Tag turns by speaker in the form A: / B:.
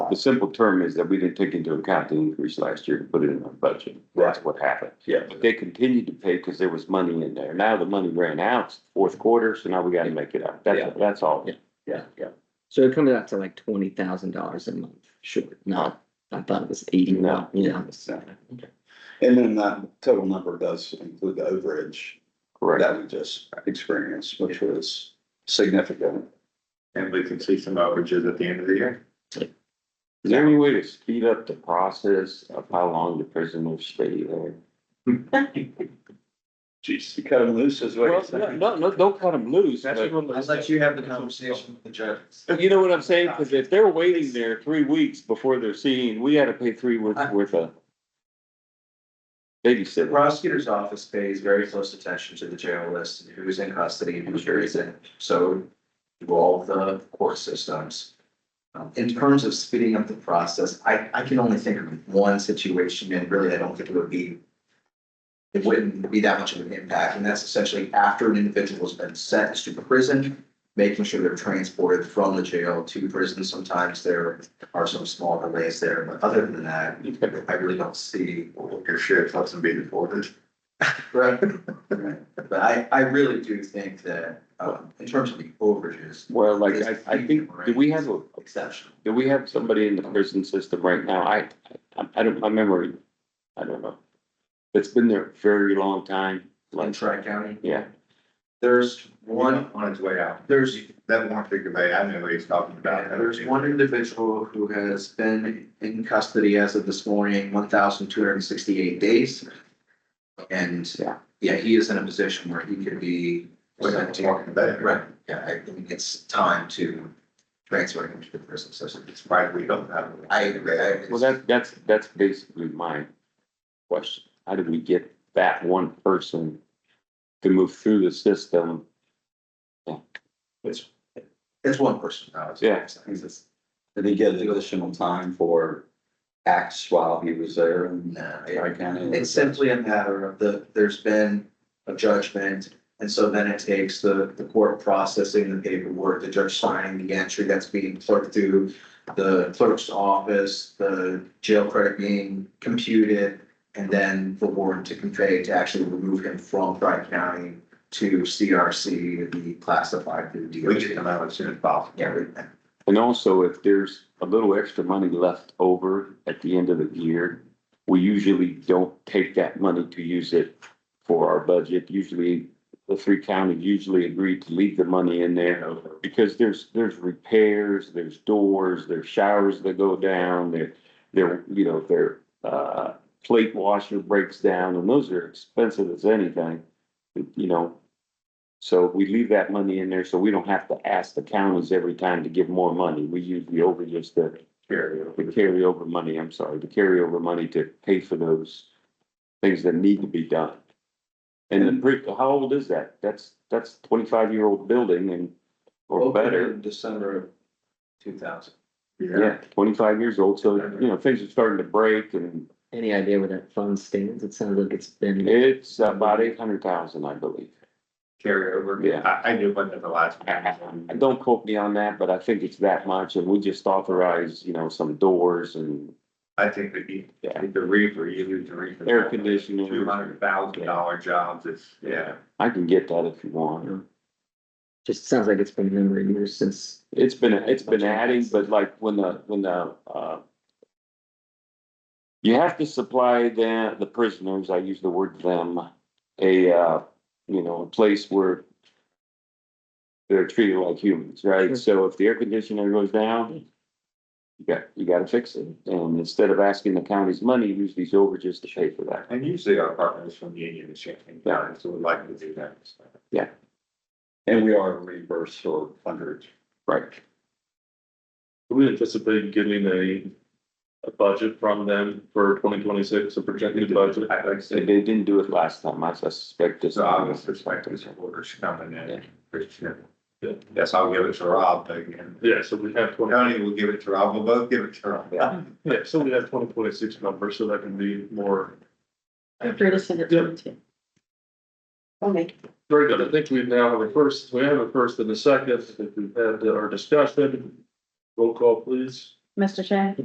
A: The simple term is that we didn't take into account the increase last year and put it in our budget. That's what happened.
B: Yeah.
A: But they continued to pay because there was money in there. Now the money ran out, fourth quarter, so now we gotta make it up. That's, that's all.
C: Yeah. So it comes out to like twenty thousand dollars a month, short, not, I thought it was eighty,
A: No.
C: yeah.
B: No. And then that total number does include the overage
A: Correct.
B: that we just experienced, which was significant.
D: And we can see some overages at the end of the year.
A: Is there any way to speed up the process of how long the prison will stay there?
B: Jeez, you cut them loose is what you're saying.
A: no, no, don't cut them loose.
E: I'll let you have the conversation with the judge.
A: You know what I'm saying? Cause if they're waiting there three weeks before they're seen, we had to pay three weeks worth of
E: The
A: babysitter.
E: prosecutor's office pays very close attention to the jail list, and who's in custody and who's isn't, so do all the court systems. Um, In terms of speeding up the process, I, I can only think of one situation, and really, I don't think it would be it wouldn't be that much of an impact, and that's essentially after an individual's been sentenced to prison, making sure they're transported from the jail to prison. Sometimes there are some small delays there, but other than that, I really don't see
D: Your sheriff lets them be deported.
E: Right, right. But I, I really do think that, um, in terms of the overages,
A: Well, like, I, I think, do we have a,
E: exceptional.
A: do we have somebody in the prison system right now? I, I, I don't, my memory, I don't know. It's been there a very long time,
E: In
A: like,
E: Tri-County,
A: yeah,
E: there's
D: One
E: one,
D: on its way out.
E: there's,
D: That one figure, they- I know what he's talking about.
E: there's one individual who has been in custody as of this morning, one thousand two hundred and sixty-eight days. And,
A: Yeah.
E: yeah, he is in a position where he could be
D: We're not
E: sent to-
D: talking about it.
E: Right, yeah, I think it's time to transfer him to the prison system.
D: It's right, we don't have.
E: I agree, I agree.
A: well, that, that's, that's basically my question. How did we get that one person to move through the system?
E: It's one person now. it's-
A: Yeah.
E: it's-
B: Did he get additional time for acts while he was there in
E: Nah, it-
B: Tri County?
E: it's simply a matter of the, there's been a judgment. And so then it takes the, the court processing the paperwork, the judge signing the entry that's being clerked through the clerk's office, the jail credit being computed. And then the warrant to convey to actually remove him from Tri County to CRC to be classified through
D: We get
E: DOJ.
D: them out as soon as possible.
E: Yeah, we-
A: And also, if there's a little extra money left over at the end of the year, we usually don't take that money to use it for our budget. Usually, the three counties usually agree to leave the money in there because there's, there's repairs, there's doors, there's showers that go down, there, there, you know, there, uh, plate washer breaks down, and those are expensive as anything, you know, so we leave that money in there, so we don't have to ask the counties every time to give more money. We use the over just the the carryover money, I'm sorry, the carryover money to pay for those things that need to be done. And then, pre- how old is that? That's, that's twenty-five year old building and, or
E: Opened
A: better.
E: in December of two thousand.
A: Yeah, twenty-five years old, so, you know, things are starting to break and
C: Any idea where that fund stands? It sounds like it's been,
A: it's about eight hundred thousand, I believe.
D: Carry over.
A: Yeah.
D: I, I knew one of the last.
A: And Don't quote me on that, but I think it's that much, and we just authorize, you know, some doors and
D: I think that you,
A: Yeah.
D: the reefer, you lose the reefer.
A: air conditioning.
D: Two hundred thousand dollar jobs, it's, yeah.
A: I can get that if you want.
C: just sounds like it's been a number of years since.
A: It's been, it's been adding, but like when the, when the, uh. You have to supply the, the prisoners, I use the word them, a, uh, you know, a place where. They're treated like humans, right? So if the air conditioner goes down. You got, you gotta fix it. And instead of asking the county's money, use these overages to pay for that.
D: And usually our partners from Union and Champaign County, so we'd like to do that.
B: And we are reimbursed for hundreds.
A: Right.
F: We anticipate getting a, a budget from them for twenty twenty-six, a projected budget.
D: I'd like to
A: They,
D: say,
A: they didn't do it last time. I suspect this.
D: so I was expecting some orders coming
A: Yeah.
D: in. Christian. Yes, I'll give it to Rob again.
F: Yeah, so we have twenty,
D: Tony will give it to Rob, we'll both give it to Rob.
A: Yeah.
F: yeah, so we have twenty twenty-six numbers, so that can be more.
G: I'm free to send it to you too. I'll make it.
F: Very good. I think we now have a first, we have a first and a second. I think we've had our discussion. Roll call, please.
G: Mr. Chang?